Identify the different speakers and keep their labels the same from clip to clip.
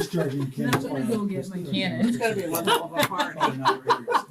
Speaker 1: discharging cannon.
Speaker 2: I'm gonna go get my cannon.
Speaker 3: It's gotta be a level of authority.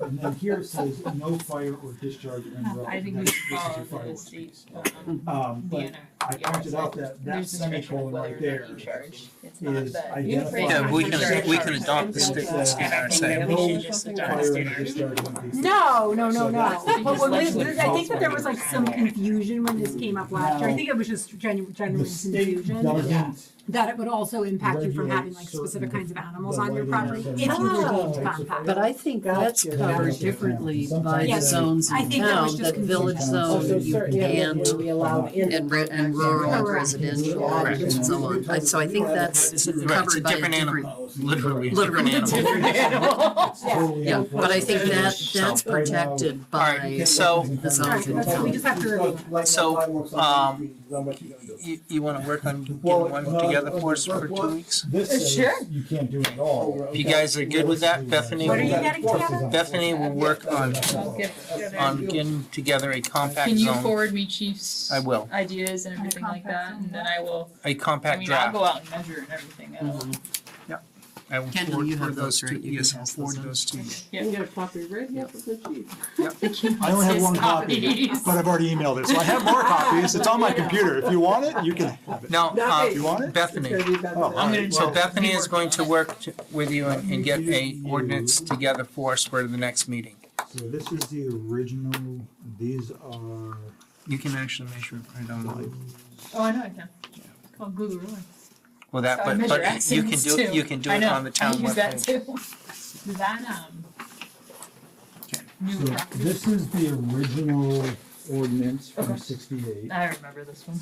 Speaker 1: And then here it says, no fire or discharge of any relevant.
Speaker 2: I think we
Speaker 1: This
Speaker 2: should
Speaker 1: is your
Speaker 2: follow the
Speaker 1: fireworks
Speaker 2: state,
Speaker 1: piece.
Speaker 2: um,
Speaker 1: Um, but
Speaker 2: DNR.
Speaker 1: I
Speaker 2: yeah,
Speaker 1: pointed out
Speaker 2: so
Speaker 1: that that
Speaker 2: There's discretion of
Speaker 1: semicolon
Speaker 2: whether
Speaker 1: right
Speaker 2: or not
Speaker 1: there
Speaker 2: you charge. It's not
Speaker 1: is
Speaker 2: that.
Speaker 1: identifying.
Speaker 4: Yeah, we can, we can
Speaker 1: discharge.
Speaker 4: adopt the state
Speaker 1: Yeah.
Speaker 4: standard.
Speaker 3: We should just adopt
Speaker 1: Fire
Speaker 3: the
Speaker 1: and
Speaker 3: standard.
Speaker 1: discharge would be-
Speaker 5: No, no, no,
Speaker 1: So
Speaker 5: no.
Speaker 1: that's-
Speaker 5: But when we- I think that there was like some confusion when this came up last year. I
Speaker 1: Now,
Speaker 5: think it was just genuine,
Speaker 1: The
Speaker 5: genuine
Speaker 1: state
Speaker 5: confusion.
Speaker 1: doesn't.
Speaker 5: That it would also impact you from
Speaker 1: regulate
Speaker 5: having like specific
Speaker 1: certain
Speaker 5: kinds of animals
Speaker 1: the
Speaker 5: on your
Speaker 1: lighting
Speaker 5: property
Speaker 1: of
Speaker 5: if you
Speaker 1: certain
Speaker 5: achieved
Speaker 1: types of
Speaker 5: compact.
Speaker 6: But I think that's covered differently by the zones
Speaker 5: I
Speaker 6: in
Speaker 5: think that was
Speaker 6: town,
Speaker 5: just
Speaker 6: the village
Speaker 1: confusing.
Speaker 6: zone
Speaker 1: you
Speaker 6: and,
Speaker 1: can-
Speaker 3: will be allowed in.
Speaker 6: and re- and rural and
Speaker 5: Correct.
Speaker 6: residential
Speaker 1: Correct.
Speaker 6: and so on. I- So I think that's
Speaker 4: Right, it's a
Speaker 6: covered by a
Speaker 4: different
Speaker 6: different.
Speaker 4: animal, literally. a
Speaker 6: Literally.
Speaker 4: different animal.
Speaker 6: Different
Speaker 1: Totally
Speaker 6: Yeah, but I think that,
Speaker 4: So-
Speaker 6: that's protected
Speaker 4: All right,
Speaker 6: by,
Speaker 4: so-
Speaker 6: The zones
Speaker 5: Alright, that's what we just have to review.
Speaker 4: So, um, You, you wanna work on getting one together for us for two weeks?
Speaker 1: This
Speaker 2: Sure.
Speaker 1: says you can't do it at all.
Speaker 4: You guys are good with that, Bethany?
Speaker 5: What are you getting together?
Speaker 4: Bethany will work on,
Speaker 2: I'll get-
Speaker 4: on getting together a compact
Speaker 2: Can you
Speaker 4: zone,
Speaker 2: forward me chief's
Speaker 4: I will.
Speaker 2: ideas and everything like that, and then I will,
Speaker 4: a
Speaker 2: I
Speaker 4: compact
Speaker 2: mean, I'll
Speaker 4: draft.
Speaker 2: go out and measure and everything, I will,
Speaker 4: I will
Speaker 6: Kendall,
Speaker 4: forward
Speaker 6: you have
Speaker 4: forward those
Speaker 6: those,
Speaker 4: to,
Speaker 6: right? You can
Speaker 4: yes, I'll
Speaker 6: pass
Speaker 4: forward
Speaker 6: those on.
Speaker 4: those
Speaker 1: Mm-hmm.
Speaker 4: to you.
Speaker 3: You got a copy right here for the chief.
Speaker 1: I only have one copy,
Speaker 2: copies.
Speaker 1: but I've already emailed it, so I have more copies. It's on my computer. If you want it, you can have it.
Speaker 4: Now,
Speaker 3: Not me.
Speaker 1: You
Speaker 4: uh,
Speaker 1: want it?
Speaker 4: Bethany,
Speaker 3: It's gotta be better.
Speaker 1: Oh,
Speaker 2: I'm gonna
Speaker 4: So
Speaker 2: Well-
Speaker 4: Bethany is going to
Speaker 2: Be
Speaker 4: work to- with you and and get a
Speaker 1: You-
Speaker 4: ordinance together for us for the next meeting.
Speaker 1: So this is the original, these are.
Speaker 4: You can actually measure it right online.
Speaker 2: Oh, I know I can. It's called Google Earth.
Speaker 4: Well, that,
Speaker 2: So I
Speaker 4: but,
Speaker 2: measure
Speaker 4: but you can
Speaker 2: axioms
Speaker 4: do, it.
Speaker 2: too.
Speaker 4: you can do
Speaker 2: I
Speaker 4: it
Speaker 2: know,
Speaker 4: on the town
Speaker 2: I use that
Speaker 4: webpage.
Speaker 2: too. That, um.
Speaker 4: Okay.
Speaker 2: New
Speaker 1: So
Speaker 2: property.
Speaker 1: this is the original ordinance from
Speaker 2: Okay.
Speaker 1: sixty-eight.
Speaker 2: I remember this one.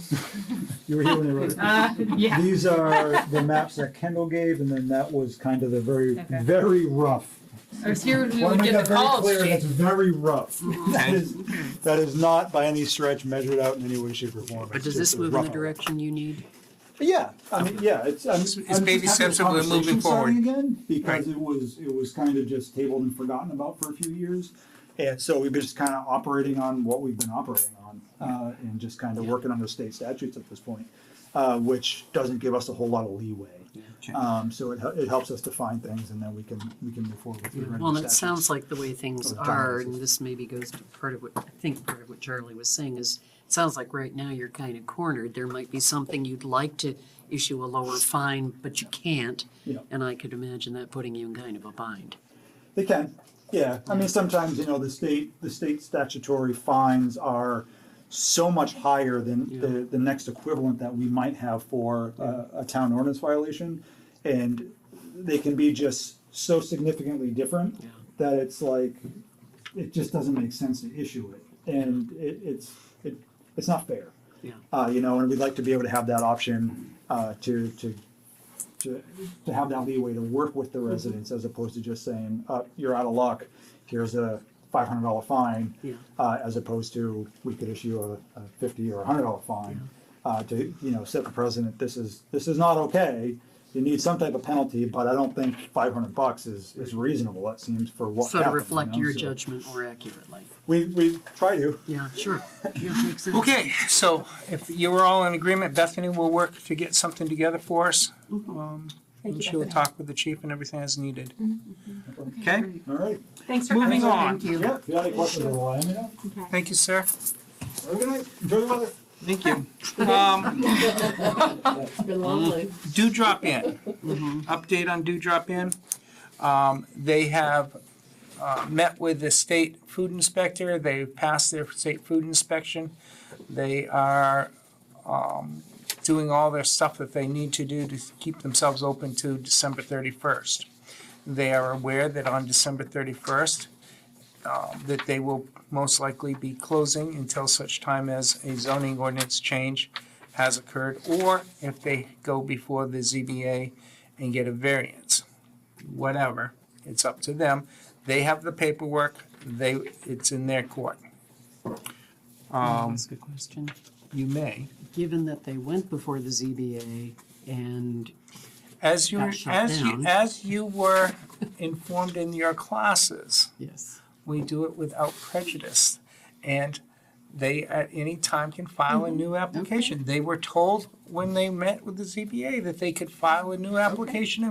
Speaker 1: You were here when they wrote it.
Speaker 2: Uh, yeah.
Speaker 1: These are the maps that Kendall gave, and then that was kind of the very,
Speaker 2: Okay.
Speaker 1: very rough.
Speaker 2: I was here when we
Speaker 1: Wanna
Speaker 2: would
Speaker 1: make
Speaker 2: get
Speaker 1: that
Speaker 2: the
Speaker 1: very
Speaker 2: calls, Mm-hmm.
Speaker 1: clear, That's
Speaker 2: Jake.
Speaker 1: very rough. That
Speaker 4: Okay.
Speaker 1: is, that is not by any stretch measured out in any way, shape, or form.
Speaker 6: but
Speaker 1: It's
Speaker 6: does
Speaker 1: just
Speaker 6: this
Speaker 1: a
Speaker 6: move in the
Speaker 1: rough-
Speaker 6: direction you need?
Speaker 1: Yeah, I mean, yeah, it's, I'm.
Speaker 4: It's- it's
Speaker 1: I'm just happy
Speaker 4: baby steps
Speaker 1: the
Speaker 4: and we're
Speaker 1: conversation's
Speaker 4: moving forward.
Speaker 1: starting Again, because
Speaker 4: Right.
Speaker 1: it was, it was kind of just tabled and forgotten about for a few years. And so we've been just kind of operating on what we've been operating on, uh, and just kind of working on the state statutes at this point. Uh, which doesn't give us a whole lot of leeway. Um, so it, hel- it helps us define things and then we can, we can move forward with the
Speaker 6: Well, and
Speaker 1: regular
Speaker 6: it
Speaker 1: statutes.
Speaker 6: sounds like the way things
Speaker 4: Oh,
Speaker 1: Or dominance
Speaker 6: are,
Speaker 1: is-
Speaker 6: and this maybe goes to part of what, I think part of what Charlie was saying is, it sounds like right now you're kind of cornered. There might be something you'd like to issue a lower fine, but you can't.
Speaker 1: Yeah.
Speaker 6: And I could imagine that putting you in kind of a bind.
Speaker 1: They can, yeah. I mean, sometimes, you know, the state, the state statutory fines are so much higher than the, the next equivalent that we might have for a, a town ordinance violation. And they can be just so significantly different
Speaker 6: Yeah.
Speaker 1: that it's like, it just doesn't make sense to issue it. And it, it's, it, it's not fair.
Speaker 6: Yeah.
Speaker 1: Uh, you know, and we'd like to be able to have that option, uh, to, to, to, to have that leeway to work with
Speaker 6: Mm-hmm.
Speaker 1: the residents as opposed to just saying, uh, you're out of luck, here's a five hundred dollar fine.
Speaker 6: Yeah.
Speaker 1: Uh, as opposed to, we could issue a, a fifty or a hundred dollar fine, uh, to, you know, set the precedent, this is, this is not okay. You need some type of penalty, but I don't think five hundred bucks is, is reasonable, that seems for what
Speaker 6: So to
Speaker 1: happened, you
Speaker 6: reflect
Speaker 1: know,
Speaker 6: your
Speaker 1: so-
Speaker 6: judgment more accurately.
Speaker 1: We, we try to.
Speaker 6: Yeah, sure. Yeah, makes sense.
Speaker 4: Okay, so if you were all in agreement, Bethany will work to get something together for us. Um,
Speaker 2: Thank
Speaker 4: And
Speaker 2: you,
Speaker 4: she will
Speaker 2: Bethany. Mm-hmm,
Speaker 4: talk with the chief and everything as needed. Okay,
Speaker 1: All right.
Speaker 5: Thanks for
Speaker 4: Moving
Speaker 5: coming.
Speaker 4: on.
Speaker 5: Thank you.
Speaker 1: Yeah, if you have any questions, I'll let me know.
Speaker 5: Okay.
Speaker 4: thank you, sir.
Speaker 1: Have a good night. Enjoy the weather.
Speaker 4: Thank you. Um,
Speaker 3: It's been lovely.
Speaker 4: do drop in, Mm-hmm. update on do drop in. Um, they have, uh, met with the state food inspector, they passed their state food inspection. They are, um, doing all their stuff that they need to do to keep themselves open to December thirty-first. They are aware that on December thirty-first, um, that they will most likely be closing until such time as a zoning ordinance change has occurred, or if they go before the ZBA and get a variance. Whatever, it's up to them. They have the paperwork, they, it's in their court. Um,
Speaker 6: Ask a question.
Speaker 4: you may,
Speaker 6: Given that they went before the ZBA and
Speaker 4: as you,
Speaker 6: Got shut
Speaker 4: as you,
Speaker 6: down.
Speaker 4: as you were informed in your classes,
Speaker 6: Yes.
Speaker 4: we do it without prejudice. And they at any time can file a new application. They were told when they met with the ZBA that they could file a new application